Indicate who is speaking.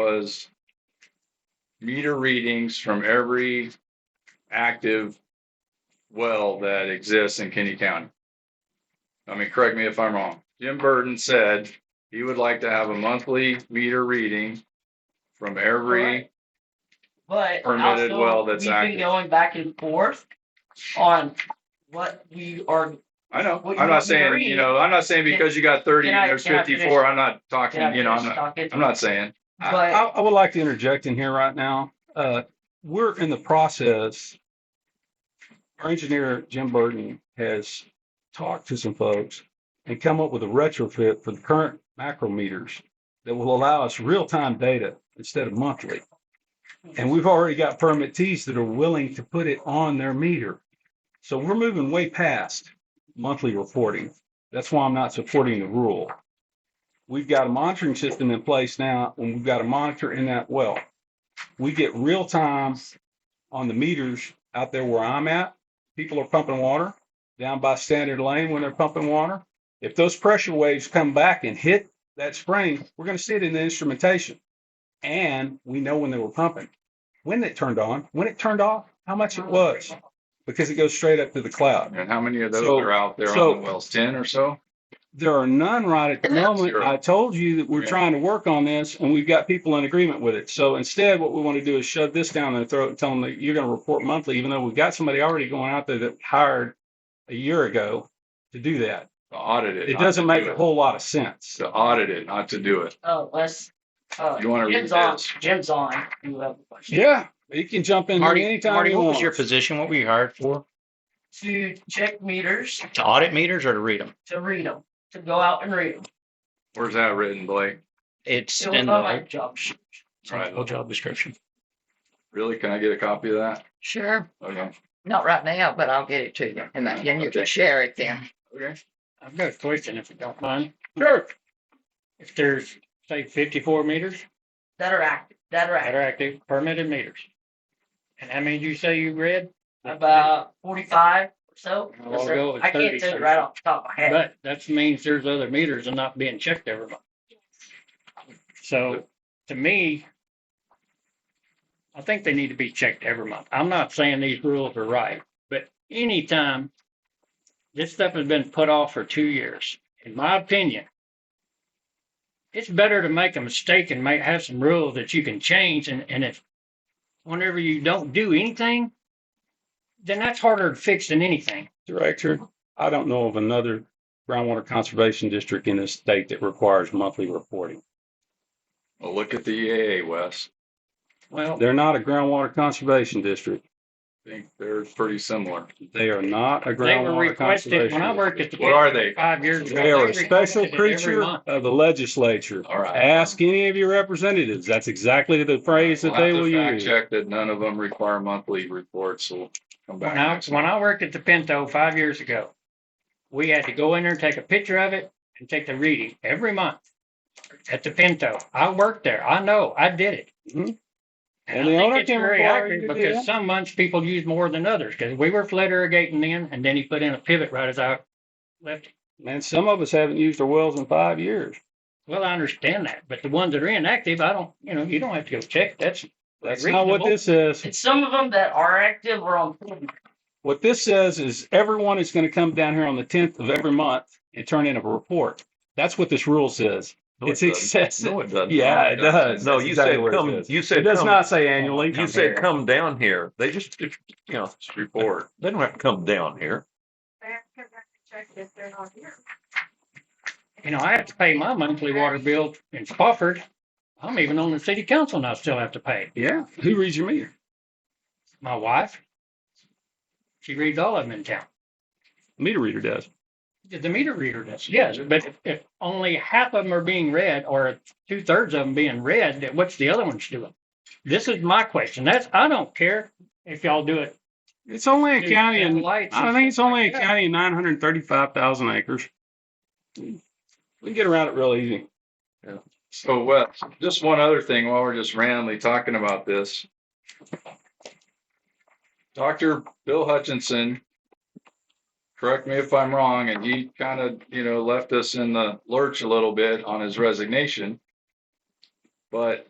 Speaker 1: was meter readings from every active well that exists in Kenny County. I mean, correct me if I'm wrong. Jim Burton said he would like to have a monthly meter reading from every,
Speaker 2: Correct. But
Speaker 1: Permitted well
Speaker 2: also,
Speaker 1: that's
Speaker 2: we've been
Speaker 1: active.
Speaker 2: going back and forth on what we are,
Speaker 1: I know,
Speaker 2: Well, you
Speaker 1: I'm
Speaker 2: want
Speaker 1: not saying,
Speaker 2: meter
Speaker 1: you know, I'm not saying because you got thirty
Speaker 2: Can I-
Speaker 1: and there's
Speaker 2: can I finish?
Speaker 1: fifty-four, I'm not
Speaker 2: can I
Speaker 1: talking, you know,
Speaker 2: finish
Speaker 1: I'm not,
Speaker 2: talking?
Speaker 1: I'm not saying.
Speaker 3: I,
Speaker 2: But-
Speaker 3: I, I would like to interject in here right now. Uh, we're in the process. Our engineer, Jim Burton, has talked to some folks and come up with a retrofit for the current macrometers that will allow us real-time data instead of monthly. And we've already got permittees that are willing to put it on their meter. So we're moving way past monthly reporting. That's why I'm not supporting the rule we've got a monitoring system in place now, and we've got a monitor in that well. We get real time on the meters out there where I'm at. People are pumping water down by Standard Lane when they're pumping water. If those pressure waves come back and hit that spring, we're going to see it in the instrumentation. And we know when they were pumping, when it turned on, when it turned off, how much it was, because it goes straight up to the cloud.
Speaker 1: And how many of those
Speaker 3: So-
Speaker 1: are out there
Speaker 3: so-
Speaker 1: on the wells? Ten or so?
Speaker 3: There are none right at the moment.
Speaker 1: Zero.
Speaker 3: I told you that we're
Speaker 1: Yeah.
Speaker 3: trying to work on this and we've got people in agreement with it. So instead, what we want to do is shove this down their throat and tell them that you're going to report monthly, even though we've got somebody already going out there that hired a year ago to do that.
Speaker 1: Audited.
Speaker 3: It doesn't make a whole lot of sense.
Speaker 1: To audit it, not to do it.
Speaker 2: Oh, let's, uh,
Speaker 1: You wanna read
Speaker 2: Jim's on,
Speaker 1: this?
Speaker 2: Jim's on, you have a question.
Speaker 3: Yeah, you can jump in
Speaker 4: Marty,
Speaker 3: anytime
Speaker 4: Marty,
Speaker 3: you
Speaker 4: what was your
Speaker 3: want.
Speaker 4: position? What were you hired for?
Speaker 2: To check meters,
Speaker 4: To audit meters or to read them?
Speaker 2: to read them, to go out and read them.
Speaker 1: Where's that written, Blake?
Speaker 4: It's
Speaker 2: It was
Speaker 4: in
Speaker 2: on my
Speaker 4: the
Speaker 2: job sheet.
Speaker 4: it's in the whole job description.
Speaker 1: Really? Can I get a copy of that?
Speaker 5: Sure,
Speaker 1: Okay.
Speaker 5: not right now, but I'll get it to you and then and you can
Speaker 1: Okay.
Speaker 5: share it then.
Speaker 1: Okay.
Speaker 6: I've got a question if you don't mind.
Speaker 3: Sure.
Speaker 6: If there's, say, fifty-four meters
Speaker 2: That are active, that are
Speaker 6: that
Speaker 2: active,
Speaker 6: are active permitted meters. And how many did you say you read?
Speaker 2: about forty-five or so.
Speaker 6: I'll go with
Speaker 2: I can't
Speaker 6: 30,
Speaker 2: tell you
Speaker 6: sir.
Speaker 2: right off the top of my head.
Speaker 6: But that means there's other meters and not being checked every month. So to me, I think they need to be checked every month. I'm not saying these rules are right, but anytime this stuff has been put off for two years, in my opinion, it's better to make a mistake and make, have some rules that you can change and, and if whenever you don't do anything, then that's harder to fix than anything.
Speaker 3: Director, I don't know of another groundwater conservation district in this state that requires monthly reporting.
Speaker 1: Well, look at the EAA, Wes.
Speaker 6: Well,
Speaker 3: They're not a groundwater conservation district.
Speaker 1: I think they're pretty similar.
Speaker 3: They are not a
Speaker 6: They were
Speaker 3: groundwater
Speaker 6: requested,
Speaker 3: conservation.
Speaker 6: when I
Speaker 3: district.
Speaker 6: worked at the
Speaker 5: E
Speaker 1: What are they?
Speaker 6: five years ago.
Speaker 3: They are a
Speaker 6: requested
Speaker 3: special
Speaker 6: it every
Speaker 3: creature
Speaker 6: month.
Speaker 3: of the legislature.
Speaker 1: All right.
Speaker 3: Ask any of your representatives. That's exactly the phrase that
Speaker 1: We'll have
Speaker 3: they
Speaker 1: to
Speaker 3: will
Speaker 1: fact
Speaker 3: use.
Speaker 1: Check that none of them require monthly reports, so we'll come back.
Speaker 6: When I,
Speaker 1: next
Speaker 6: when I worked at the Pinto five years ago, we had to go in there and take a picture of it and take the reading every month at the Pinto. I worked there. I know, I did it.
Speaker 3: Mhm.
Speaker 6: And
Speaker 3: And the
Speaker 6: I
Speaker 3: owner
Speaker 6: think it's
Speaker 3: can
Speaker 6: very
Speaker 3: require you
Speaker 6: accurate
Speaker 3: to do that?
Speaker 6: because some months people use more than others, because we were flood irrigating then, and then he put in a pivot right as I left.
Speaker 3: And some of us haven't used our wells in five years.
Speaker 6: Well, I understand that, but the ones that are inactive, I don't, you know, you don't have to go check. That's
Speaker 3: That's not what
Speaker 6: Reasonable.
Speaker 3: this is.
Speaker 2: And some of them that are active are on forty.
Speaker 3: What this says is everyone is going to come down here on the tenth of every month and turn in a report. That's what this rule says.
Speaker 1: No, it
Speaker 3: It's
Speaker 1: doesn't.
Speaker 3: excessive.
Speaker 1: No, it doesn't.
Speaker 3: Yeah, it does.
Speaker 7: No,
Speaker 3: That's
Speaker 7: you
Speaker 3: exactly
Speaker 7: said
Speaker 3: what it
Speaker 7: come,
Speaker 3: says.
Speaker 7: you
Speaker 3: It
Speaker 7: said
Speaker 3: does
Speaker 7: come,
Speaker 3: not say annually.
Speaker 7: you said come down here. They just, you know,
Speaker 1: Just Report.
Speaker 7: they don't have to come down here.
Speaker 6: you know, I have to pay my monthly water bill in Spofford. I'm even on the city council and I still have to pay.
Speaker 3: Yeah, who reads your meter?
Speaker 6: My wife, she reads all of them in town.
Speaker 3: Meter reader does.
Speaker 6: The the meter reader does, yes, but if, if only half of them are being read or two thirds of them being read, then what's the other ones doing? This is my question. That's, I don't care if y'all do it.
Speaker 3: It's only a
Speaker 6: through
Speaker 3: county and
Speaker 6: lights
Speaker 3: I
Speaker 6: and
Speaker 3: think it's
Speaker 6: stuff
Speaker 3: only
Speaker 6: like
Speaker 3: a
Speaker 6: that.
Speaker 3: county of nine hundred thirty-five thousand acres. We can get around it real easy.
Speaker 1: So Wes, just one other thing while we're just randomly talking about this. Dr. Bill Hutchinson, correct me if I'm wrong, and he kind of, you know, left us in the lurch a little bit on his resignation. But